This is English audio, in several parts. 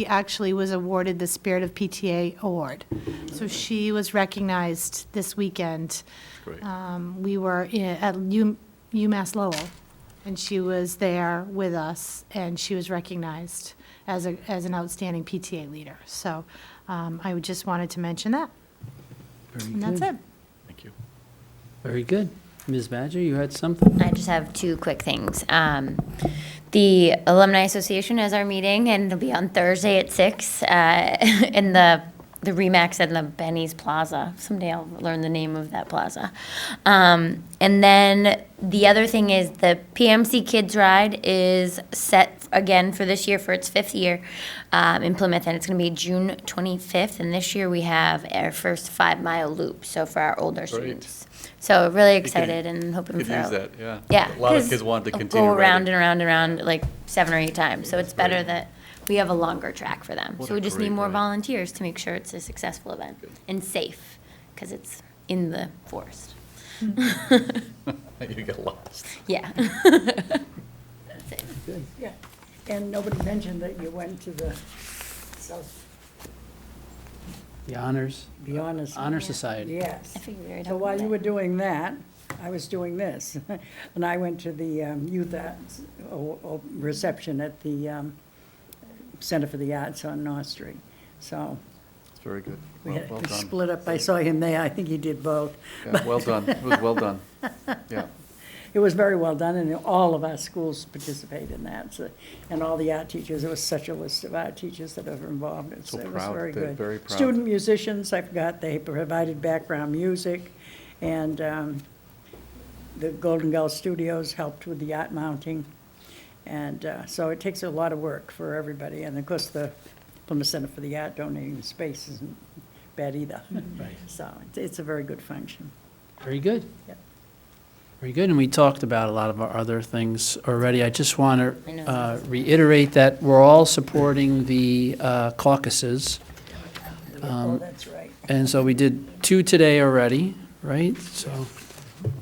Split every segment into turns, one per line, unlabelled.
She actually was awarded the Spirit of PTA Award. So she was recognized this weekend.
Great.
Um, We were i- at U- UMass Lowell, and she was there with us, and she was recognized as a, as an outstanding PTA leader. So um, I would just wanted to mention that,
Very
and that's
good.
it.
Thank you.
Very good. Ms. Badger, you had something?
I just have two quick things. Um, the Alumni Association has our meeting, and it'll be on Thursday at six uh, in the the Remax and the Benny's Plaza. Someday I'll learn the name of that plaza. Um, and then the other thing is the PMC Kids Ride is set again for this year for its fifth year um, in Plymouth, and it's going to be June 25th. And this year we have our first five mile loop, so for our older students. So really excited and hoping
Could
for
use that, yeah.
yeah.
A lot of
'cause
kids want to
it'll
continue
Go around
riding.
and around and around like seven or eight times. So it's better
great.
that we have a longer track for them.
What a
So we just need
great
more
ride.
volunteers to make sure it's a successful event
Good.
and safe because it's in the forest.
You get lost.
Yeah.
Yeah, and nobody mentioned that you went to the South,
The honors,
the Honor Society.
honor society.
Yes.
I figured we were
So
talking
while you
about
were
it.
doing that, I was doing this. And I went to the um, youth arts o- o- reception at the um, Center for the Arts on North Street. So
It's very good.
we
Oh, Well
had,
well
we
done.
split up. I saw him there. I think he did both.
Yeah, Well done. It was well done. Yeah.
It was very well done, and all of our schools participate in that, so- and all the art teachers, there was such a list of art teachers that are involved. It's-
So
it was
proud.
very
They're
good.
very proud.
Student musicians, I forgot, they provided background music, and um, the Golden Gull Studios helped with the art mounting, and uh, so it takes a lot of work for everybody, and of course, the Plymouth Center for the Art donating space isn't bad either.
Right.
So it's- it's a very good function.
Very good.
Yep.
Very good, and we talked about a lot of our other things already. I just want
I know.
to reiterate that we're all supporting the uh, caucuses.
Oh, that's right.
And so we did two today already, right? So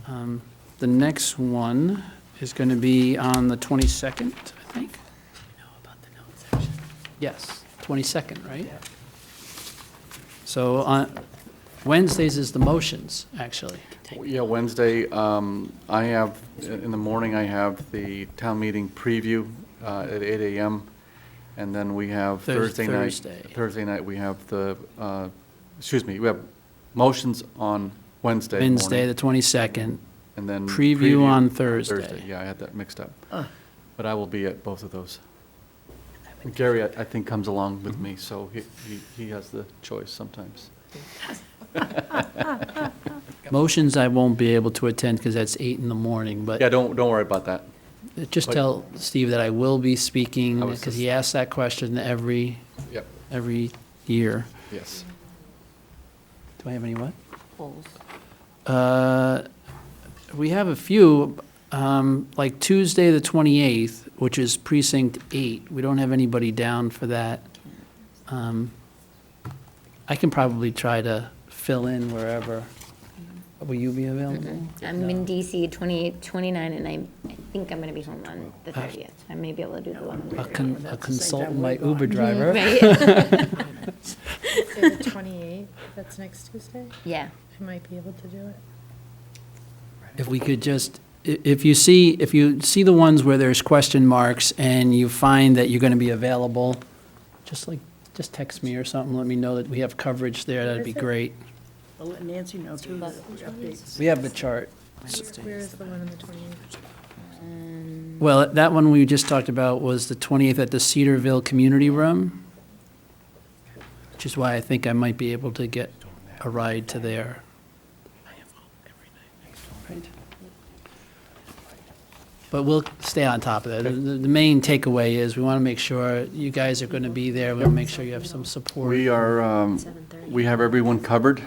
um, the next one is going to be on the 22nd, I think? Yes, 22nd, right? So on Wednesdays is the motions, actually.
Yeah, Wednesday, um, I have, in the morning, I have the town meeting preview uh, at eight AM. And then we have
Thurs-
Thursday night.
Thursday.
Thursday night, we have the, uh, excuse me, we have motions on Wednesday morning.
Wednesday, the 22nd.
And then.
Preview on Thursday.
Yeah, I had that mixed up. But I will be at both of those. And Gary, I I think, comes along
Mm-hmm.
with me, so he, he- he has the choice sometimes.
Motions I won't be able to attend because that's eight in the morning, but
Yeah, don't, don't worry about that.
just
but-
tell Steve that I will be speaking
I was
because
just-
he asks that question every,
Yep,
every year.
yes.
Do I have any what?
Holes.
Uh, We have a few, um, like Tuesday, the 28th, which is precinct eight. We don't have anybody down for that. Um, I can probably try to fill in wherever. Will you be available?
Mm-hmm.
I'm in DC 28, 29, and I I think I'm going to be home on the
Ah.
30th. I may be able to do the
A
one.
con- a
That's the same time
consultant,
we're
my
gone.
Uber driver.
Right?
Say the 28th, that's next Tuesday,
Yeah.
I might be able to do it.
If we could just, i- if you see, if you see the ones where there's question marks and you find that you're going to be available, just like, just text me or something, let me know that we have coverage there, that'd be
Where is it?
great.
I'll let Nancy know too, the updates.
We have the chart.
Where is the one on the 28th?
Well, that one we just talked about was the 28th at the Cedarville Community Room, which is why I think I might be able to get a ride to there. But we'll stay on top of that. The, the the main takeaway is we want to make sure you guys are going to be there. We'll make sure you have some support.
We are, um, we have everyone covered,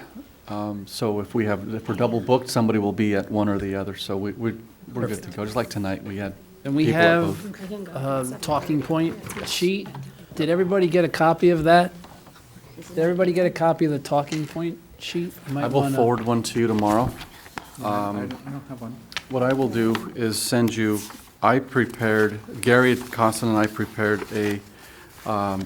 um, so if we have, if we're double booked, somebody will be at one or the other, so we, we're we're good to go, just like tonight, we had.
And we
people at
have
both.
a talking point sheet. Did everybody get a copy of that? Did everybody get a copy of the talking point sheet? You might
I will
wanna-
forward one to you tomorrow.
I
Um,
don't I don't have one.
What I will do is send you, I prepared, Gary Costin and I prepared a um,